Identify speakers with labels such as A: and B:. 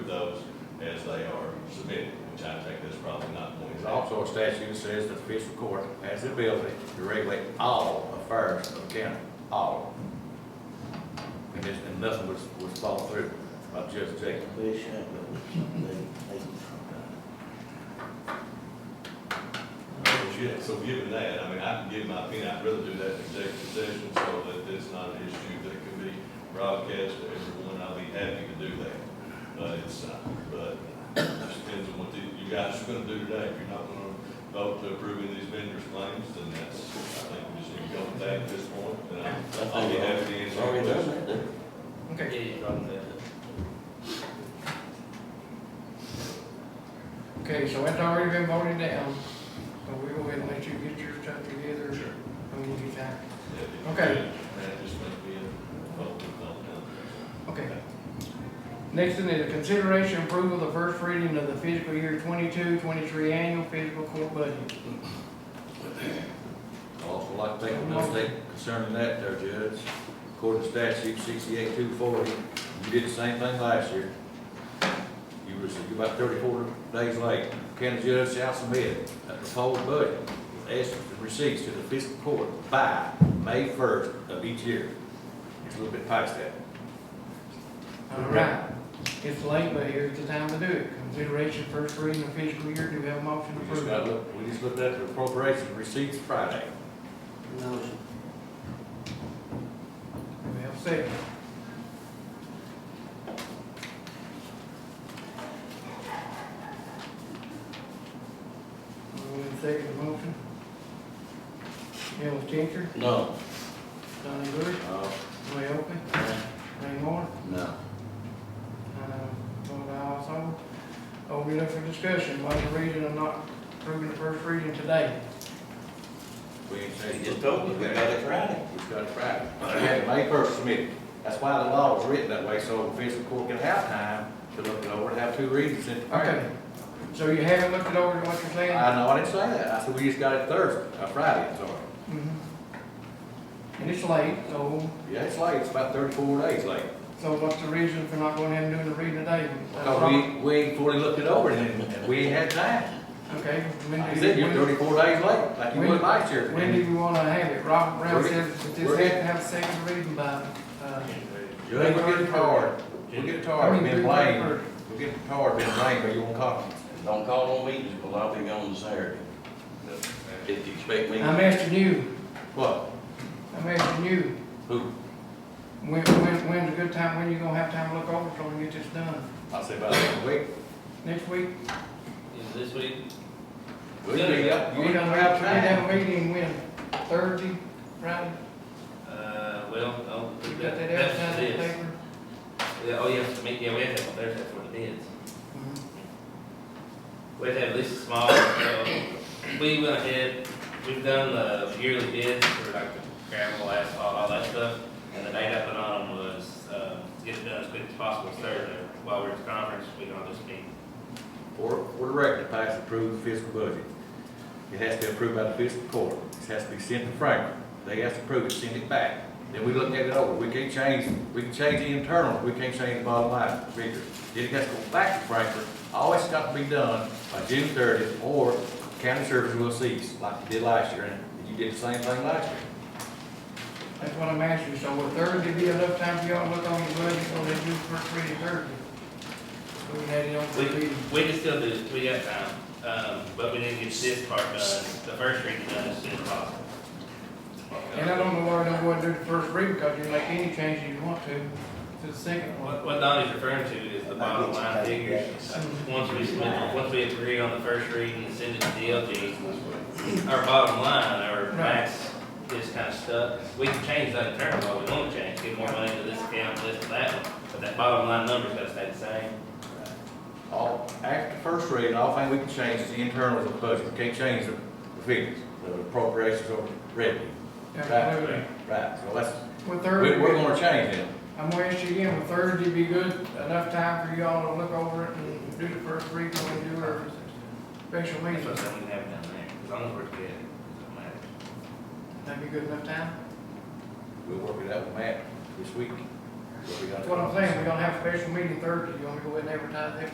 A: Florida statute says the official court has the ability to regulate all affairs of the county, all. And this, and nothing was, was followed through by Judge Jacob.
B: Wish I could, they, they,
C: But yeah, so given that, I mean, I can give my opinion, I'd rather do that in executive session so that it's not an issue that can be broadcast to everyone, I'll be happy to do that. But it's, uh, but it just depends on what you you guys are gonna do today, if you're not gonna vote to approving these vendors' claims, then that's, I think we just need to go with that at this point, and I'll, I'll be happy to answer your questions.
D: Okay. Okay, so that's already been voted down, so we will then let you get your stuff together when you get back.
C: Yeah,
D: Okay.
C: That just might be a vote to vote down.
D: Okay. Next thing is a consideration approval of the first reading of the fiscal year 22-23 annual fiscal court budget.
A: I'd Also like to take another statement concerning that there, Judge. According to statute sixty-eight two forty, you did the same thing last year. You was, you about thirty-four days late. County judge shall submit a proposed budget with estimates and receipts to the fiscal court by May first of each year. It's a little bit past that.
D: All right. It's late, but here's the time to do it. Consideration first reading of fiscal year, do we have a motion to
A: We just got,
D: approve?
A: look- we just looked at the appropriation receipts Friday.
B: no,
D: Do we have a second? Move in second the motion. Ellis Changer,
B: no,
D: Donnie Bush,
A: Uh,
D: Roy Oakley, Ray Moore,
B: no.
D: uh, vote aye also. Open it up for discussion, why the reason of not approving the first reading today?
A: we ain't
B: They
A: changed.
B: just told me, we got it Friday.
A: We've got it Friday. We had it May first submitted. That's why the law was written that way, so the fiscal court can have time to look it over and have two readings in.
D: Okay, so you haven't looked it over, is what you're saying?
A: I know, I didn't say that. I said we just got it Thursday, uh, Friday, I'm sorry.
D: Mhm. Mm-hmm. And it's late, so,
A: Yeah, it's late, it's about thirty-four days late.
D: so what's the reason for not going ahead and doing the reading today?
A: Because we, we ain't fully looked it over and then we ain't had time.
D: Okay. when
A: I
D: do
A: said
D: you-
A: you're thirty-four days late, like you
D: When-
A: was last year.
D: When do you wanna have it? Robert Brown
A: We're-
D: said that this
A: we're-
D: had to have a second reading by, uh.
A: Judge, we're getting tired. We're getting
D: I
A: tired,
D: mean,
A: been
D: through
A: blamed.
D: November.
A: We're getting tired, been blamed, but you won't call me.
B: Don't call on me, because I'll be gone Saturday. If you expect me,
D: I'm asking you,
A: What?
D: I'm asking you,
A: Who?
D: when, when, when's a good time, when you gonna have time to look over so we can get this done?
A: I say about a week.
D: Next week?
E: Is this week?
A: We'll be up. You
D: We're
A: ain't
D: gonna
A: gonna
D: have,
A: have
D: we
A: time.
D: have a meeting when, Thursday, Friday?
E: Uh, well, oh,
D: You got
E: that-
D: that
E: that's
D: advertised in the
E: this.
D: paper?
E: Yeah, oh, yes, we- yeah, we have to have Thursday for the bids.
D: Mhm.
E: We have to have this small, so we went ahead, we've done the yearly bids for like the gravel, asphalt, all that stuff. And the date I put on was, uh, to get it done as quick as possible, Thursday, while we're at the conference, we can all just meet.
A: Or, or direct to pass approved fiscal budget. It has to be approved by the fiscal court. It has to be sent to Franklin. They have to approve it, send it back. Then we look at it over. We can't change, we can change the internal, we can't change the bottom line figure. Then it has to go back to Franklin. All it's got to be done by June thirtieth, or county service will cease, like you did last year, and you did the same thing last year.
D: That's what I'm asking, so will Thursday be enough time for y'all to look on the budget, so they do first reading Thursday? So we had it on
E: We,
D: for reading.
E: we can still do it, we got time, um, but we need to get this part done, the first reading done as soon as possible.
D: And I don't know why I don't go and do the first reading, because you can make any changes you want to, to the second one.
E: What, what Donnie's referring to is the bottom line figures. Once we, submit- once we agree on the first reading and send it to DLG, our bottom line, our max is kind of stuck. We can change that internally, but we don't change, get more money to this account, this to that one, but that bottom line number's gotta stay the same.
A: All, after the first reading, all thing we can change is the internal of the budget. We can't change the the figures, the appropriations or revenue.
D: Absolutely.
A: Right, so that's,
D: Would
A: we, we're
D: Thursday,
A: gonna change it.
D: I'm gonna ask you again, would Thursday be good, enough time for y'all to look over it and do the first reading when we do our special
E: That's
D: meeting?
E: what I'm saying, we can have it down there, as long as we're good, it doesn't matter.
D: That'd be good enough time?
A: We'll work it out with Matt this week. what we gotta
D: That's what I'm
A: do.
D: saying, we're gonna have a special meeting Thursday, you wanna go ahead and advertise that